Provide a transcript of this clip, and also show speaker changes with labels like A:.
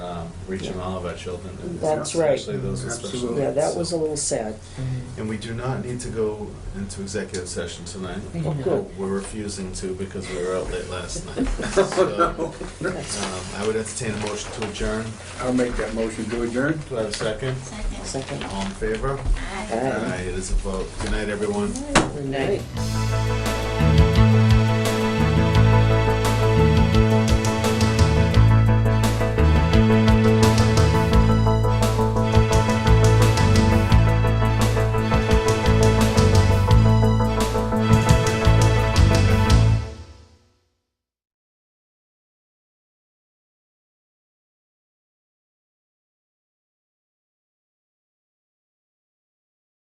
A: reaching um, all of our children. and
B: That's right.
A: Especially those with special
C: Absolutely.
A: needs.
B: Yeah, that was a
A: so-
B: little sad.
A: And we do not need to go into executive session tonight.
B: Oh, good.
A: We're refusing to because we were out late last night.
B: Oh,
A: So, um, I would entertain a motion to adjourn.
C: I'll make that motion to adjourn.
A: Do I have a second?
D: Second.
B: Second.
A: All in favor?
D: Aye.
B: Aye.
A: It is a vote. Good night, everyone.
B: Good night.
D: Aye.